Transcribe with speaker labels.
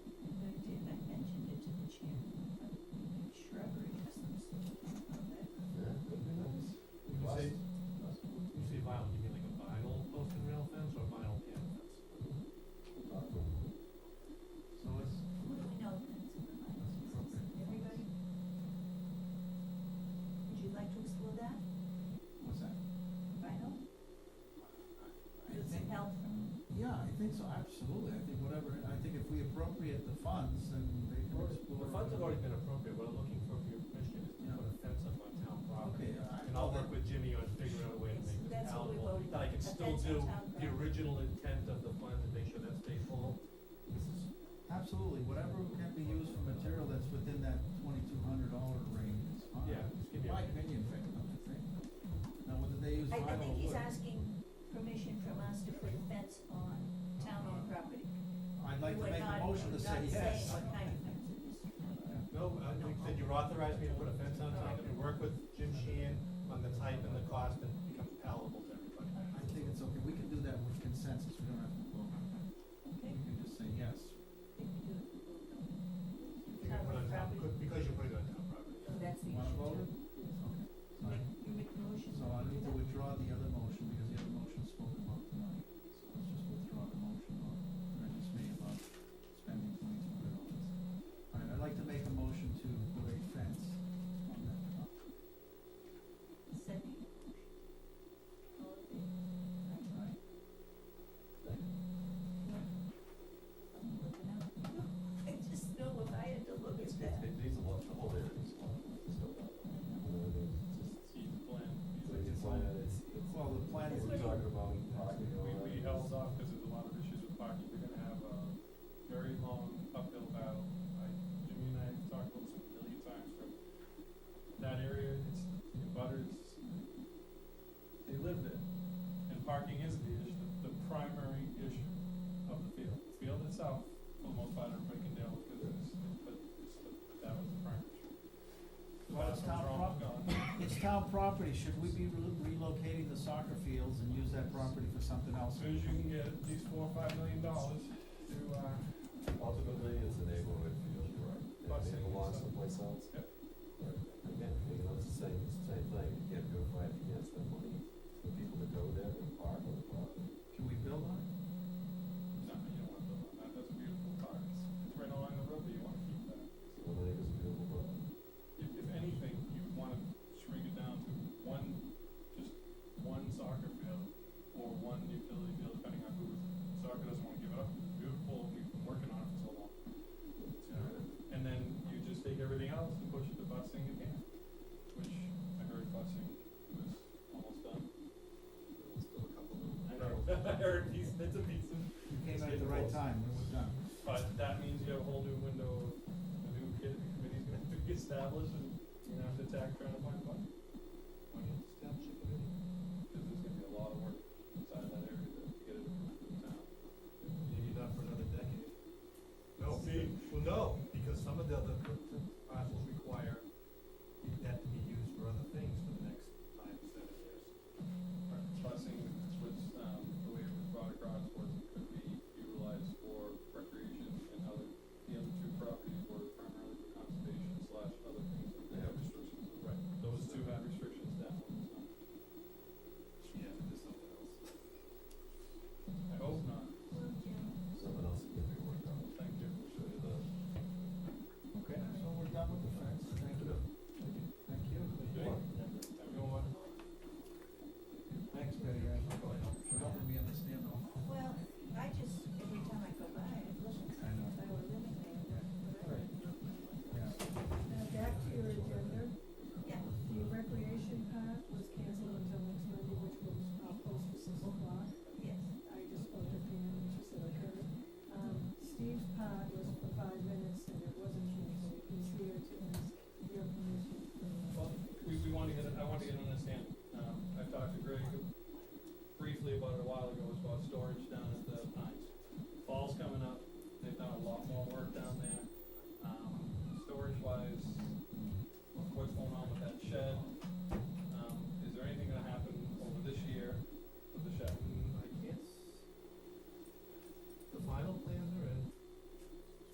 Speaker 1: Absolutely, I think whatever, I think if we appropriate the funds, then they can
Speaker 2: Well,
Speaker 1: explore.
Speaker 2: The funds have already been appropriated, what I'm looking for for your permission is to
Speaker 1: Yeah.
Speaker 2: put a fence up on town property.
Speaker 1: Okay, uh, I-
Speaker 2: And I'll work with Jimmy on figuring out a way to make this
Speaker 3: That's what we
Speaker 2: palatable,
Speaker 3: voted
Speaker 2: that I
Speaker 3: on, a
Speaker 2: can still
Speaker 3: fence on
Speaker 2: do
Speaker 3: town
Speaker 2: the
Speaker 3: grounds.
Speaker 2: original intent of the plan and make sure that stays full. This is,
Speaker 1: Absolutely, whatever can be used for material that's within that twenty-two hundred dollar range is fine.
Speaker 2: Yeah, just give me a
Speaker 1: My
Speaker 2: range.
Speaker 1: opinion, thing, I'm just saying. Now, whether they use
Speaker 3: I,
Speaker 1: vinyl
Speaker 3: I
Speaker 1: or
Speaker 3: think he's
Speaker 1: wood,
Speaker 3: asking permission from us to put a fence on town-owned property.
Speaker 1: I'd like to
Speaker 3: We're
Speaker 1: make a
Speaker 3: not-
Speaker 1: motion to say yes.
Speaker 3: Not saying what kind of fence it is.
Speaker 2: no, I think that you authorized me to put a fence on town, and work with Jim Sheehan on the type and the cost, and it becomes palatable to everybody.
Speaker 1: I think it's okay, we can do that with consensus, we don't have to vote.
Speaker 3: Okay,
Speaker 1: We can just say yes.
Speaker 3: we can do it.
Speaker 2: You can put on town, because- because you're putting it on town property.
Speaker 3: So that's the issue.
Speaker 1: Wanna vote it?
Speaker 3: You
Speaker 1: Okay.
Speaker 3: make, you make the motion.
Speaker 1: So I need to withdraw the other motion because the other motion spoken about tonight. So let's just withdraw the motion on, that I just made about spending twenty-two hundred dollars. All right, I'd like to make a motion to put a fence on that property.
Speaker 3: Second. All in favor?
Speaker 1: Right.
Speaker 3: I'm looking out. I just know if I had to look at that.
Speaker 4: These are what, the whole area is one, it's still not.
Speaker 5: just see the plan.
Speaker 4: So you just wanna, it's, it's,
Speaker 1: Well, the plan
Speaker 3: That's
Speaker 1: is,
Speaker 4: we're
Speaker 3: what-
Speaker 4: talking about parking and all
Speaker 5: We,
Speaker 4: that.
Speaker 5: we held off because there's a lot of issues with parking, we're gonna have a very long uphill battle. I, Jimmy and I have talked about this a million times, from that area, it's, the butters, they live there. And parking is the issue, the primary issue of the field. The Field itself, for the most part, everybody can deal with, because it's, but, it's- but that was the primary issue. The
Speaker 1: Well, it's
Speaker 5: bathrooms
Speaker 1: town
Speaker 5: are almost gone.
Speaker 1: it's town property, should we be re- relocating the soccer fields and use that property for something
Speaker 5: As
Speaker 1: else?
Speaker 5: soon as you can get at least four or five million dollars to, uh,
Speaker 4: Ultimately, it's a neighborhood feel, you're right. It-
Speaker 5: Busing
Speaker 4: It belongs
Speaker 5: and stuff.
Speaker 4: someplace else.
Speaker 5: Yep.
Speaker 4: But again, you know, it's the same, it's the same thing, you can't go fight, you can't spend money for people to go there and park on the property.
Speaker 1: Can we build on it?
Speaker 5: No, you don't want to build on that, that's a beautiful park, it's, it's right along the road, but you wanna keep that.
Speaker 4: So I think it's a beautiful property.
Speaker 5: If, if anything, you wanna shrink it down to one, just one soccer field, or one utility field, depending on who, soccer doesn't wanna give it up, it's beautiful, we've been working on it for so long. You know, And then you just take everything else and push it to busing again, which I heard busing was almost done.
Speaker 4: Still a couple of.
Speaker 5: I know, I heard piece, bits and pieces.
Speaker 1: You came in at the right time, when it was done.
Speaker 5: But that means you have a whole new window of a new kid, committee's gonna have to be established and you're gonna have to attack trying to find money. uh, um, Um, Um, Um,